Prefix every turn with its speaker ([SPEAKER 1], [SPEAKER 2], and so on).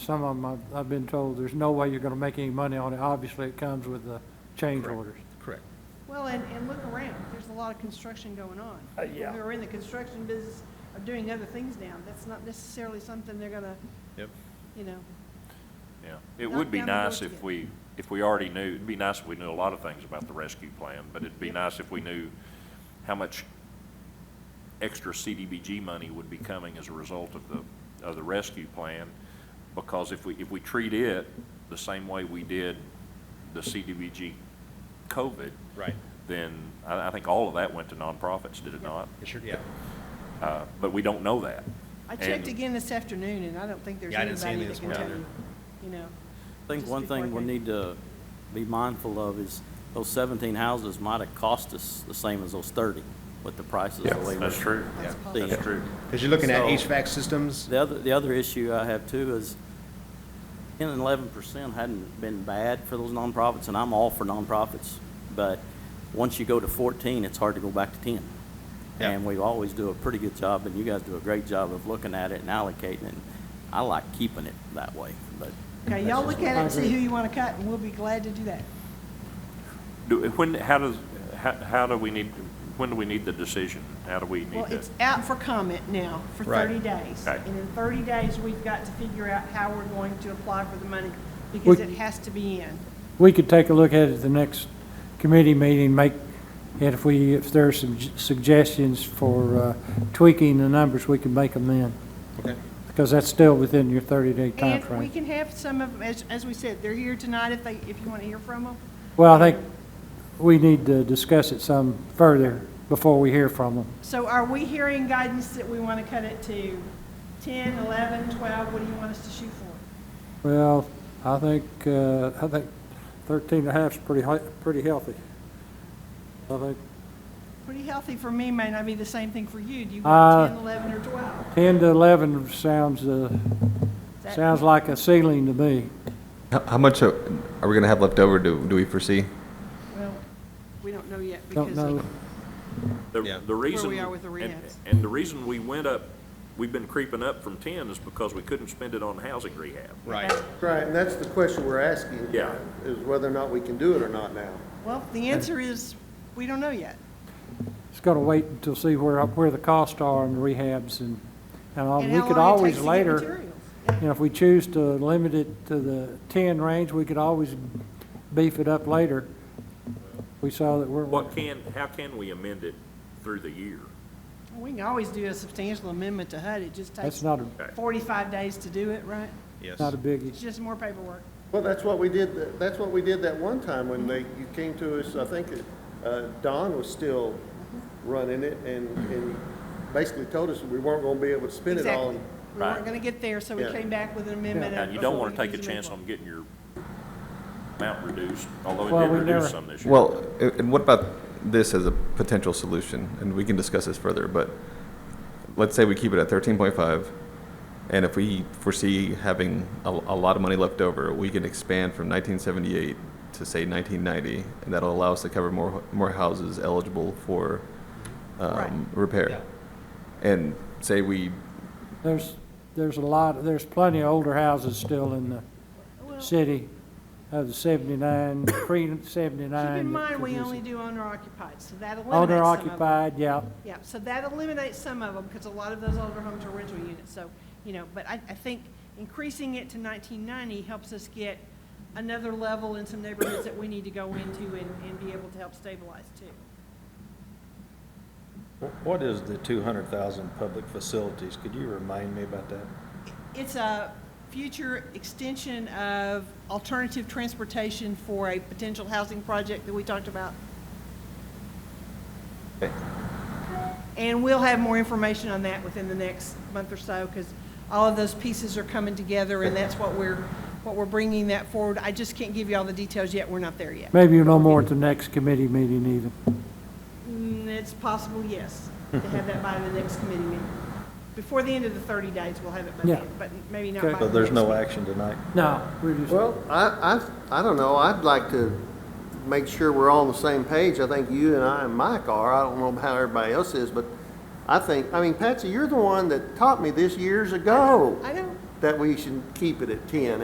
[SPEAKER 1] Some of them, I've- I've been told, there's no way you're going to make any money on it. Obviously, it comes with the change
[SPEAKER 2] Correct.
[SPEAKER 1] orders.
[SPEAKER 2] Correct.
[SPEAKER 3] Well, and, and look around, there's a lot of construction going on.
[SPEAKER 2] Uh, yeah.
[SPEAKER 3] People who are in the construction business are doing other things now, that's not necessarily something they're gonna,
[SPEAKER 2] Yep.
[SPEAKER 3] you know,
[SPEAKER 4] Yeah, it
[SPEAKER 3] Not
[SPEAKER 4] would be
[SPEAKER 3] down the road
[SPEAKER 4] nice
[SPEAKER 3] to
[SPEAKER 4] if
[SPEAKER 3] get-
[SPEAKER 4] we, if we already knew, it'd be nice if we knew a lot of things about the rescue plan, but it'd be
[SPEAKER 3] Yep.
[SPEAKER 4] nice if we knew how much extra CDBG money would be coming as a result of the, of the rescue plan. Because if we, if we treat it the same way we did the CDBG COVID,
[SPEAKER 2] Right.
[SPEAKER 4] then I, I think all of that went to nonprofits, did it not?
[SPEAKER 2] It sure, yeah.
[SPEAKER 4] Uh, but we don't know that.
[SPEAKER 3] I checked
[SPEAKER 4] And-
[SPEAKER 3] again this afternoon, and I don't think there's
[SPEAKER 2] Yeah, I didn't see
[SPEAKER 3] anybody that
[SPEAKER 2] anything
[SPEAKER 3] can
[SPEAKER 2] this
[SPEAKER 3] tell
[SPEAKER 2] morning
[SPEAKER 3] you, you know.
[SPEAKER 5] I think
[SPEAKER 3] Just
[SPEAKER 5] one
[SPEAKER 3] before I
[SPEAKER 5] thing we
[SPEAKER 3] came.
[SPEAKER 5] need to be mindful of is those seventeen houses might have cost us the same as those thirty with the prices the way
[SPEAKER 4] That's true.
[SPEAKER 3] That's
[SPEAKER 2] Yeah.
[SPEAKER 3] possible.
[SPEAKER 4] That's
[SPEAKER 5] The
[SPEAKER 4] true.
[SPEAKER 2] Because you're looking at
[SPEAKER 5] So-
[SPEAKER 2] HVAC systems.
[SPEAKER 5] the other, the other issue I have too is ten and eleven percent hadn't been bad for those nonprofits, and I'm all for nonprofits. But once you go to fourteen, it's hard to go back to ten.
[SPEAKER 2] Yeah.
[SPEAKER 5] And we always do a pretty good job, and you guys do a great job of looking at it and allocating it. I like keeping it that way, but
[SPEAKER 3] Okay, y'all look at it and see who you wanna cut, and we'll be glad to do that.
[SPEAKER 4] Do, when, how does, how, how do we need, when do we need the decision? How do we
[SPEAKER 3] Well,
[SPEAKER 4] need to?
[SPEAKER 3] it's out for comment now for
[SPEAKER 2] Right.
[SPEAKER 3] thirty days.
[SPEAKER 4] Okay.
[SPEAKER 3] And in thirty days, we've got to figure out how we're going to apply for the money, because
[SPEAKER 1] We-
[SPEAKER 3] it has to be in.
[SPEAKER 1] We could take a look at it at the next committee meeting, make, and if we, if there are some j- suggestions for uh, tweaking the numbers, we can make them then,
[SPEAKER 2] Okay.
[SPEAKER 1] because that's still within your 30-day time
[SPEAKER 3] And we
[SPEAKER 1] frame.
[SPEAKER 3] can have some of, them, as, as we said, they're here tonight if they, if you want to hear from them.
[SPEAKER 1] Well, I think we need to discuss it some further before we hear from them.
[SPEAKER 3] So are we hearing guidance that we want to cut it to 10, 11, 12? What do you want us to shoot for?
[SPEAKER 1] Well, I think, uh, I think 13 and a half's pretty, hea- pretty healthy. I think
[SPEAKER 3] Pretty healthy for me may not be the same thing for you. Do you
[SPEAKER 1] Uh,
[SPEAKER 3] want 10, 11, or 12?
[SPEAKER 1] 10 to 11 sounds, uh,
[SPEAKER 3] Is that-
[SPEAKER 1] sounds like a ceiling to me.
[SPEAKER 6] How, how much are, are we gonna have left over? Do do we foresee?
[SPEAKER 3] Well, we don't know yet
[SPEAKER 1] Don't
[SPEAKER 3] because
[SPEAKER 1] know.
[SPEAKER 3] of-
[SPEAKER 4] The,
[SPEAKER 2] Yeah.
[SPEAKER 4] the reason.
[SPEAKER 3] we are with the
[SPEAKER 4] and-
[SPEAKER 3] rehabs.
[SPEAKER 4] And the reason we went up, we've been creeping up from ten is because we couldn't spend it on housing rehab.
[SPEAKER 2] Right.
[SPEAKER 7] Right, and that's the question we're asking.
[SPEAKER 4] Yeah.
[SPEAKER 7] Is whether or not we can do it or not now.
[SPEAKER 3] well, the answer is, we don't know yet.
[SPEAKER 1] It's going to wait until see where, where the costs are and rehabs and, and all.
[SPEAKER 3] And
[SPEAKER 1] Uh, we
[SPEAKER 3] how
[SPEAKER 1] could
[SPEAKER 3] long it
[SPEAKER 1] always
[SPEAKER 3] takes to get
[SPEAKER 1] later.
[SPEAKER 3] materials.
[SPEAKER 1] You know, if we choose to limit it to the 10 range, we could always beef it up later. We saw that we're.
[SPEAKER 4] What can, how can we amend it through the year?
[SPEAKER 3] We can always do a substantial amendment to HUD. It just
[SPEAKER 1] That's
[SPEAKER 3] takes
[SPEAKER 1] not a,
[SPEAKER 3] 45 days to do it, right?
[SPEAKER 2] Yes.
[SPEAKER 1] not a biggie.
[SPEAKER 3] It's just more paperwork.
[SPEAKER 7] Well, that's what we did, th- that's what we did that one time when they, you came to us, I think uh, Don was still running it and, and basically told us we weren't gonna be able to spend it all.
[SPEAKER 3] Exactly. We weren't
[SPEAKER 4] Right.
[SPEAKER 3] going to get there, so we
[SPEAKER 7] Yeah.
[SPEAKER 3] came back with an amendment.
[SPEAKER 4] And you don't
[SPEAKER 3] before
[SPEAKER 4] want
[SPEAKER 3] we
[SPEAKER 4] to take a
[SPEAKER 3] could use
[SPEAKER 4] chance on
[SPEAKER 3] amendment.
[SPEAKER 4] getting your amount reduced, although
[SPEAKER 1] Well,
[SPEAKER 4] it did
[SPEAKER 1] we never-
[SPEAKER 4] reduce some this year.
[SPEAKER 6] Well, a- and what about this as a potential solution? And we can discuss this further, but let's say we keep it at thirteen point five, and if we foresee having a, a lot of money left over, we can expand from nineteen seventy-eight to say nineteen ninety, and that'll allow us to cover more, more houses eligible for,
[SPEAKER 3] Right.
[SPEAKER 6] um, repair. And say we
[SPEAKER 1] There's, there's a lot, there's plenty of older houses still in the
[SPEAKER 3] Well,
[SPEAKER 1] city of the 79, pre-79.
[SPEAKER 3] Keep in mind, we only do owner occupied, so that eliminates
[SPEAKER 1] Owner
[SPEAKER 3] some of them.
[SPEAKER 1] occupied, yeah.
[SPEAKER 3] Yeah, so that eliminates some of them, because a lot of those older homes are rental units, so, you know, but I, I think increasing it to nineteen ninety helps us get another level in some neighborhoods that we need to go into and, and be able to help stabilize too.
[SPEAKER 8] Wh- What is the 200,000 public facilities? Could you remind me about that?
[SPEAKER 3] It's a future extension of alternative transportation for a potential housing project that we talked about. And we'll have more information on that within the next month or so, because all of those pieces are coming together, and that's what we're, what we're bringing that forward. I just can't give you all the details yet, we're not there yet.
[SPEAKER 1] Maybe no more at the next committee meeting either.
[SPEAKER 3] Mm, It's possible, yes, to have that by the next committee meeting. Before the end of the 30 days, we'll have it by
[SPEAKER 1] Yeah.
[SPEAKER 3] then, but maybe not
[SPEAKER 1] Okay.
[SPEAKER 3] by
[SPEAKER 8] So
[SPEAKER 3] the
[SPEAKER 8] there's
[SPEAKER 3] next
[SPEAKER 8] no
[SPEAKER 3] meeting.
[SPEAKER 8] action tonight?
[SPEAKER 1] No, we're just.
[SPEAKER 7] Well, I, I, I don't know, I'd like to make sure we're all on the same page. I think you and I and Mike are, I don't know how everybody else is, but I think, I mean, Patsy, you're the one that taught me this years ago.
[SPEAKER 3] I know,
[SPEAKER 7] that we should keep it at ten.